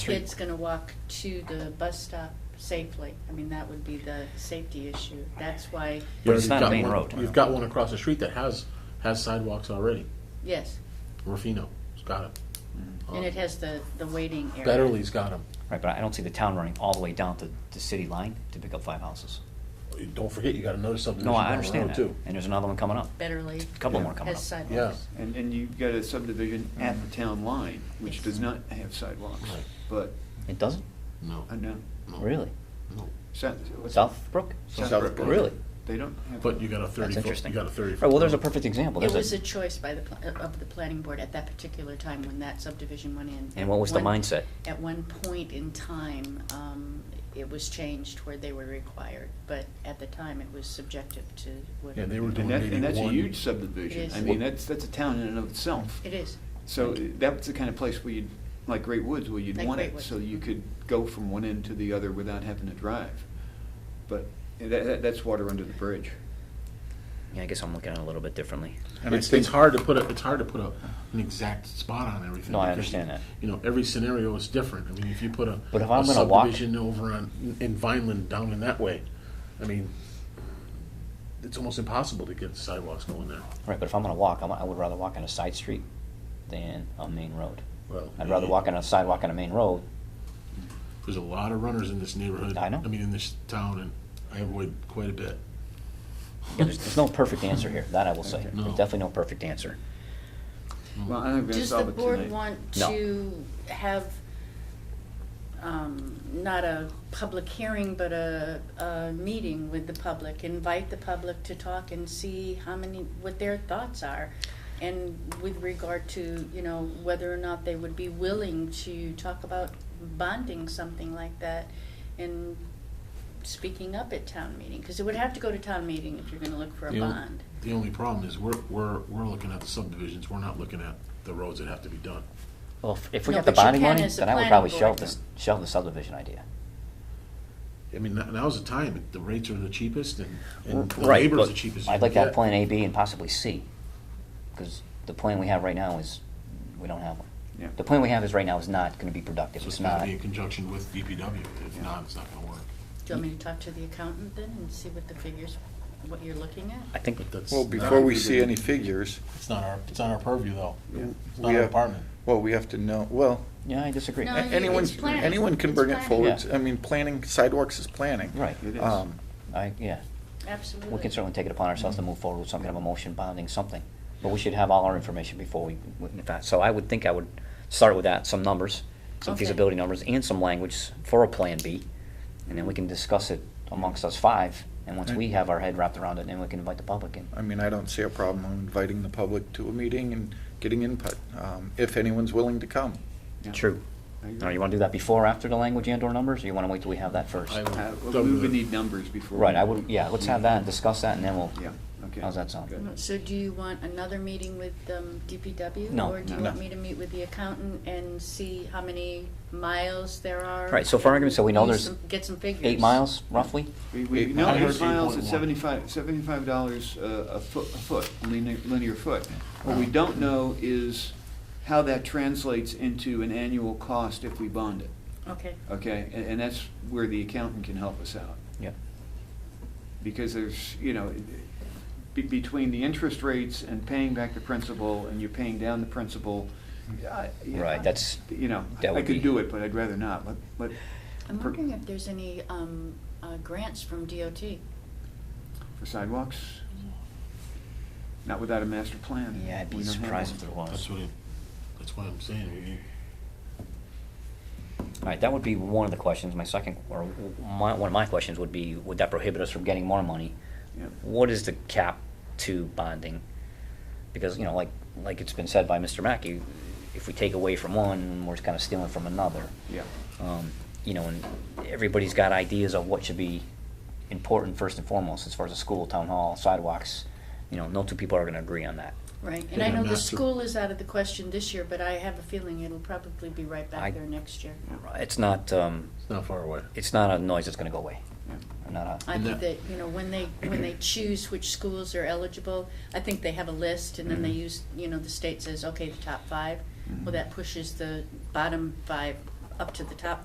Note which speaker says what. Speaker 1: kid's gonna walk to the bus stop safely. I mean, that would be the safety issue. That's why,
Speaker 2: But
Speaker 3: But
Speaker 2: it's
Speaker 3: you've
Speaker 2: not a
Speaker 3: got
Speaker 2: main
Speaker 3: one-
Speaker 2: road.
Speaker 3: You've got one across the street that has, has sidewalks already.
Speaker 1: yes,
Speaker 3: Rufino's got it.
Speaker 1: and it has the, the waiting area.
Speaker 3: Betterly's got them.
Speaker 2: Right, but I don't see the town running all the way down to the city line to pick up five houses.
Speaker 3: Don't forget, you got another subdivision
Speaker 2: No, I
Speaker 3: down the
Speaker 2: understand
Speaker 3: road
Speaker 2: that.
Speaker 3: too.
Speaker 2: And there's another one coming up,
Speaker 1: Betterly
Speaker 2: a couple more coming
Speaker 1: has
Speaker 2: up.
Speaker 1: sidewalks.
Speaker 4: And, and you've got a subdivision at the
Speaker 1: Mm-hmm.
Speaker 4: town line, which does not have sidewalks,
Speaker 3: Right.
Speaker 4: but,
Speaker 2: It doesn't?
Speaker 3: No,
Speaker 4: I know.
Speaker 2: Really?
Speaker 3: no.
Speaker 4: South- what's-
Speaker 2: Southbrook?
Speaker 4: Southbrook.
Speaker 2: Really?
Speaker 4: They don't have.
Speaker 3: But you got a thirty foot,
Speaker 2: That's
Speaker 3: you
Speaker 2: interesting.
Speaker 3: got a thirty foot.
Speaker 2: Right, well, there's a
Speaker 3: road.
Speaker 2: perfect example.
Speaker 1: It
Speaker 2: There's
Speaker 1: was a choice by the, pl- uh, of the planning board at that particular time when that subdivision went in.
Speaker 2: And what was the
Speaker 1: At one-
Speaker 2: mindset?
Speaker 1: At one point in time, um, it was changed where they were required, but at the time, it was subjective to what.
Speaker 3: Yeah, they were
Speaker 4: And
Speaker 3: doing
Speaker 4: that,
Speaker 3: maybe
Speaker 4: and that's a
Speaker 3: one-
Speaker 4: huge subdivision.
Speaker 1: Yes.
Speaker 4: I mean, that's, that's a town in and of itself.
Speaker 1: It is.
Speaker 4: So uh, that's the kind of place where you'd, like Great Woods, where you'd
Speaker 1: Like
Speaker 4: want
Speaker 1: Great
Speaker 4: it,
Speaker 1: Woods.
Speaker 4: so you could go from one end to the other without having to drive. But that, that- that's water under the bridge.
Speaker 2: Yeah, I guess I'm looking at it a little bit differently.
Speaker 3: And it's, it's hard to put a, it's hard to put a, an exact spot on everything.
Speaker 2: No, I
Speaker 3: because,
Speaker 2: understand that.
Speaker 3: You know, every scenario is different. I mean, if you put a,
Speaker 2: But if
Speaker 3: a
Speaker 2: I'm gonna walk-
Speaker 3: subdivision over on, in Vineland down in that way, I mean, it's almost impossible to get sidewalks going there.
Speaker 2: Right, but if I'm gonna walk, I'm- I would rather walk on a side street than a main road.
Speaker 3: Well,
Speaker 2: I'd rather walk on a sidewalk on a main road.
Speaker 3: There's a lot of runners in this neighborhood.
Speaker 2: I know.
Speaker 3: I mean, in this town, and I avoid quite a bit.
Speaker 2: Yeah, There's, there's no perfect answer here, that I will say.
Speaker 3: No.
Speaker 2: There's definitely no perfect answer. Mm-hmm.
Speaker 4: Well, I think we're gonna
Speaker 1: Does the
Speaker 4: solve it
Speaker 1: board
Speaker 4: tonight.
Speaker 1: want
Speaker 2: No.
Speaker 1: to have, um, not a public hearing, but a, a meeting with the public? Invite the public to talk and see how many, what their thoughts are? And with regard to, you know, whether or not they would be willing to talk about bonding something like that and speaking up at town meeting? Because it would have to go to town meeting if you're gonna look for a
Speaker 3: The only-
Speaker 1: bond.
Speaker 3: The only problem is we're, we're, we're looking at the subdivisions, we're not looking at the roads that have to be done.
Speaker 2: Well, if- if we
Speaker 1: No,
Speaker 2: got the
Speaker 1: but you
Speaker 2: bonding
Speaker 1: can
Speaker 2: money,
Speaker 1: as a
Speaker 2: then I would
Speaker 1: planning
Speaker 2: probably
Speaker 1: board.
Speaker 2: shelve this, shelve the subdivision idea.
Speaker 3: I mean, now- now's the time, the rates are the cheapest and, and the
Speaker 2: Right,
Speaker 3: labor's
Speaker 2: but
Speaker 3: the cheapest. you
Speaker 2: I'd like to
Speaker 3: can
Speaker 2: have
Speaker 3: get.
Speaker 2: plan A, B, and possibly C, because the plan we have right now is, we don't have one.
Speaker 4: Yeah.
Speaker 2: The plan we have is right now is not gonna be productive,
Speaker 3: So
Speaker 2: it's
Speaker 3: it's gotta
Speaker 2: not,
Speaker 3: be in conjunction with DPW, if not, it's not gonna work.
Speaker 1: Do you want me to talk to the accountant then and see what the figures, what you're looking at?
Speaker 2: I think,
Speaker 3: But that's.
Speaker 5: Well,
Speaker 3: not-
Speaker 5: before we see any figures,
Speaker 3: It's not our, it's not our purview though.
Speaker 4: Yeah.
Speaker 3: It's
Speaker 5: we
Speaker 3: not our
Speaker 5: have,
Speaker 3: department.
Speaker 5: well, we have to know, well,
Speaker 2: yeah, I disagree.
Speaker 1: No,
Speaker 5: a-
Speaker 1: I mean,
Speaker 5: anyone,
Speaker 1: it's planning.
Speaker 5: anyone can
Speaker 1: It's
Speaker 5: bring it
Speaker 1: planning.
Speaker 5: forward.
Speaker 2: Yeah.
Speaker 5: I mean, planning, sidewalks is planning.
Speaker 2: Right,
Speaker 4: It is.
Speaker 5: Um,
Speaker 2: I, yeah,
Speaker 1: Absolutely. Mm-hmm.
Speaker 2: we can certainly take it upon ourselves to move forward with some kind of a motion bonding, something, but we should have all our information before we, in fact, so I would think I would start with that, some numbers, some
Speaker 1: Okay.
Speaker 2: feasibility numbers, and some language for a Plan B, and then we can discuss it amongst us five, and once we have our head wrapped around it, then we can invite the public in.
Speaker 5: I mean, I don't see a problem in inviting the public to a meeting and getting input, um, if anyone's willing to come.
Speaker 4: Yeah.
Speaker 2: True.
Speaker 4: I agree.
Speaker 2: Now, you want to do that before, or after the language and/or numbers, or you want to wait till we have that first?
Speaker 3: I would-
Speaker 4: Uh, well,
Speaker 3: double
Speaker 4: We would
Speaker 3: the-
Speaker 4: need numbers before.
Speaker 2: Right,
Speaker 4: we-
Speaker 2: I would, yeah, let's have that and discuss that, and then we'll,
Speaker 4: Yeah, okay.
Speaker 2: How's that sound?
Speaker 4: Good.
Speaker 1: Mm, So do you want another meeting with um, DPW?
Speaker 2: No.
Speaker 1: Or do you
Speaker 5: No.
Speaker 1: want me to meet with the accountant and see how many miles there are?
Speaker 2: Right, so for argument's sake, we know
Speaker 1: Use
Speaker 2: there's
Speaker 1: some- Get some figures.
Speaker 2: eight miles, roughly?
Speaker 4: We, we,
Speaker 5: Eight
Speaker 4: no,
Speaker 5: miles.
Speaker 4: eight miles at
Speaker 3: 8.1.
Speaker 4: seventy-five, seventy-five dollars uh, a foot, a foot, linear, linear foot. What we don't know is how that translates into an annual cost if we bond it,
Speaker 1: Okay.
Speaker 4: okay? And, and that's where the accountant can help us out.
Speaker 2: Yeah.
Speaker 4: Because there's, you know, be, between the interest rates and paying back the principal, and you're paying down the principal, I- yeah,
Speaker 2: Right, that's-
Speaker 4: You know,
Speaker 2: that
Speaker 4: I
Speaker 2: would be-
Speaker 4: could do it, but I'd rather not, but, but.
Speaker 1: I'm
Speaker 4: for-
Speaker 1: wondering if there's any um, uh, grants from DOT.
Speaker 4: For sidewalks? Not without a master plan.
Speaker 2: Yeah, I'd
Speaker 4: We
Speaker 2: be
Speaker 4: don't have
Speaker 2: surprised
Speaker 4: one.
Speaker 2: if there was.
Speaker 3: That's what, it- that's what I'm saying, I mean,
Speaker 2: All right, that would be one of the questions, my second, or my, one of my questions would be, would that prohibit us from getting more money?
Speaker 4: Yeah.
Speaker 2: What is the cap to bonding? Because, you know, like, like it's been said by Mr. Mackey, if we take away from one, we're kind of stealing from another.
Speaker 4: Yeah,
Speaker 2: um, you know, and everybody's got ideas of what should be important first and foremost, as far as a school, town hall, sidewalks. You know, no two people are going to agree on that.
Speaker 1: Right, and I
Speaker 3: Yeah,
Speaker 1: know the
Speaker 3: master-
Speaker 1: school is out of the question this year, but I have a feeling it'll probably be right
Speaker 2: I-
Speaker 1: back there next year.
Speaker 2: It's not, um,
Speaker 3: it's not far away.
Speaker 2: it's not a noise that's going to go away.
Speaker 4: yeah.
Speaker 2: Or not a,
Speaker 1: I think
Speaker 3: And
Speaker 1: that,
Speaker 3: that-
Speaker 1: you know, when they, when they choose which schools are eligible, I think they have a list, and then they use, you know, the state says, okay, the top five. Well, that pushes the bottom five up to the top